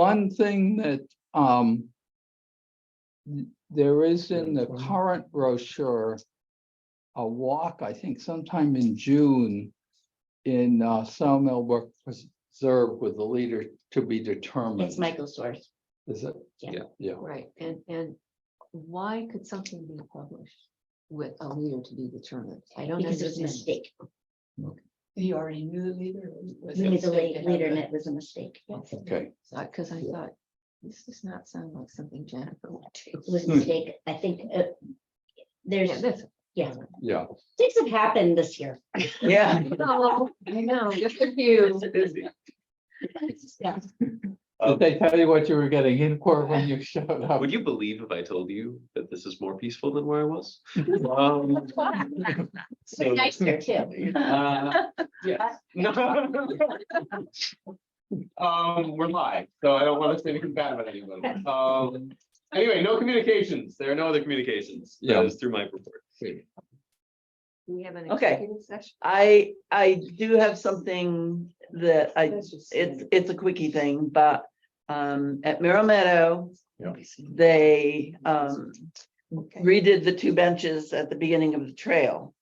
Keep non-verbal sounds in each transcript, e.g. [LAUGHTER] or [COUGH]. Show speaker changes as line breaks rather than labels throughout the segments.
one thing that, um, there is in the current brochure, a walk, I think sometime in June, in uh, Sawmill Brook Preserve with the leader to be determined.
It's Michael Source,
Is it?
Yeah.
Yeah.
Right, and, and why could something be published with a leader to be determined? I don't
because it was a
understand.
mistake.
You already knew the leader? or was it
You
a
knew the
mistake
late
to have
leader and
the-
it was a mistake. It
Okay,
Because I thought, this does not sound like something Jennifer would
was a
Hmm.
mistake. I think uh, there's,
do.
[LAUGHS] yeah,
yeah.
things have happened this year.
Yeah.
No, I know, good for you.
Did they tell you what you were getting in for when you showed up?
Would you believe if I told you that this is more peaceful than where I was?
[LAUGHS]
Um, so,
But nicer
[LAUGHS]
too.
uh, yes. [LAUGHS] Um, we're live, so I don't want to say anything bad about anyone. Um, anyway, no communications. There are no other communications.
Yeah.
That is through my report.
We have an
Okay.
executive session.
I, I do have something that I, it's, it's a quickie thing, but, um, at Merrill Meadow, they, um, redid the two benches at the beginning of the trail.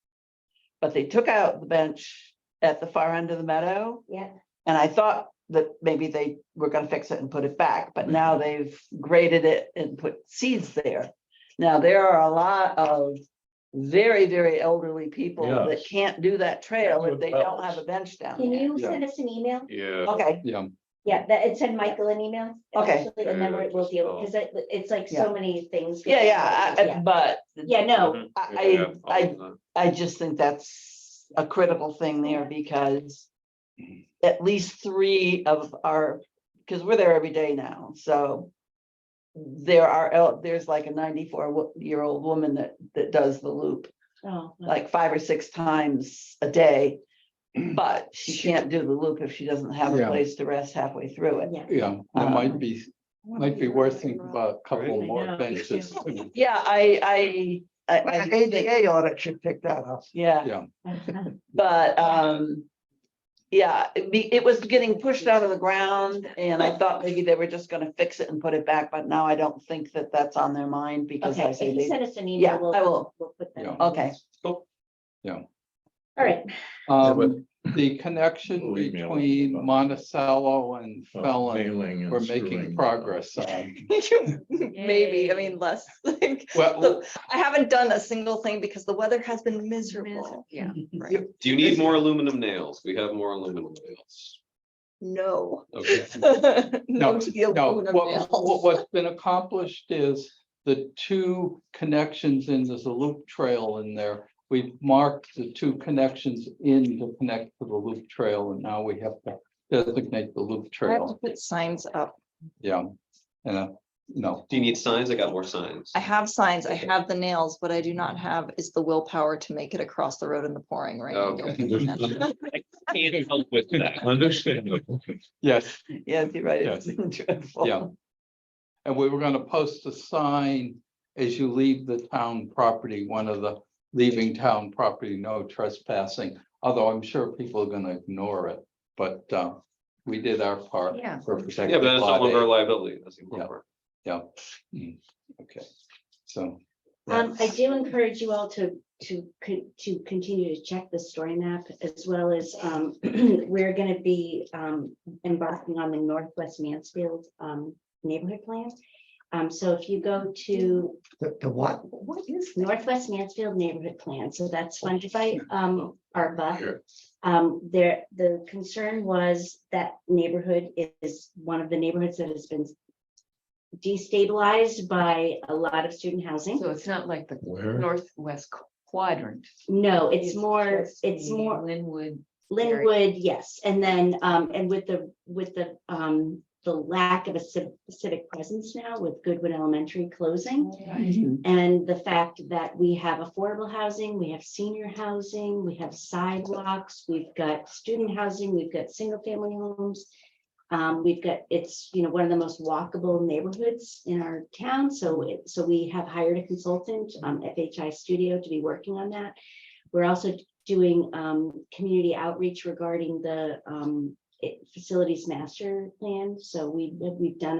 But they took out the bench at the far end of the meadow,
Yeah,
and I thought that maybe they were gonna fix it and put it back, but now they've graded it and put seeds there. Now, there are a lot of very, very elderly people that can't do that trail if they don't have a bench down
can
there.
you send us an email?
Yeah.
Okay,
Yeah,
Yeah, that, it send Michael an email.
Okay.
actually, And then we'll we'll deal, because it, it's like
Yeah.
so many things.
yeah, yeah, I- I-
Yeah.
but
Yeah, no,
Mhm.
I,
Yeah,
I, I
I'll-
I just think that's a critical thing there because at least three of our, because we're there every day now, so there are, el- there's like a ninety-four wo- year old woman that, that does the loop
oh, no.
Mm-hmm. like five or six times a day. But she can't do the loop if she doesn't have a
Yeah.
place to rest halfway through it.
yeah.
yeah, that might be, might be worth thinking
Well,
about a couple
I
more
know.
benches.
[LAUGHS]
Yeah, I, I, I, I think that-
audit should pick that up.
yeah. But um, yeah, it be, it was getting pushed out of the ground and I thought maybe they were just gonna fix it and put it back, but now I don't think that that's on their mind because
Okay,
I
if
say
you
they.
send us an
Yeah,
email,
I
we'll,
will.
we'll put that.
Yeah.
in.
Okay, [LAUGHS]
Oh,
All right,
Um, the connection
We'll email it.
between Monticello and Felon,
Failing and
uh, we're making
screwing.
progress on.
[LAUGHS]
Maybe, I
Yay.
mean,
[LAUGHS]
less, like,
Well,
I haven't done a single thing because the weather has been miserable.
[LAUGHS]
Yeah.
Right,
Do you need more aluminum nails? We have more aluminum nails.
[LAUGHS]
no.
Okay.
No
no,
to the
no,
aluminum
what, what,
nails.
what's been accomplished is the two connections in, there's a loop trail in there. We've marked the two connections in to connect to the loop trail, and now we have to designate the loop
I have to
trail,
put signs up.
yeah. And, uh, no,
Do you need signs? I got more signs.
I have signs, I have the nails, what I do not have is the willpower to make it across the road in the pouring rain.
Okay. Can't help with that.
Understandable.
yes,
yes, you're right. It's
Yes.
been dreadful.
Yeah. And we were gonna post a sign as you leave the town property, one of the leaving town property, no trespassing. Although I'm sure people are gonna ignore it, but uh, we did our part.
Yeah.
For protecting.
Yeah, but that's not
Lot
one of our
A.
liability. That's even
Yeah.
more.
Yeah. Mm. Okay, so.
um, I do encourage you all to, to, con- to continue to check the story map as well as, um, [CLEARS THROAT] we're gonna be, um, embarking on the Northwest Mansfield, um, neighborhood plan. Um, so if you go to
The the what?
What is
Northwest Mansfield Neighborhood Plan, so that's funded by, um, ARPA.
Sure.
Um, there, the concern was that neighborhood is one of the neighborhoods that has been destabilized by a lot of student housing.
So it's not like the
Where?
northwest quadrant.
No, it's more,
just
it's
the
more
Linwood. area.
Linwood, yes, and then, um, and with the, with the, um, the lack of a civ- civic presence now with Goodwood Elementary closing.
[LAUGHS]
And the fact that we have affordable housing, we have senior housing, we have sidewalks, we've got student housing, we've got single family homes. Um, we've got, it's, you know, one of the most walkable neighborhoods in our town, so it, so we have hired a consultant, um, FHI Studio to be working on that. We're also doing, um, community outreach regarding the, um, it- facilities master plan, so we, we've done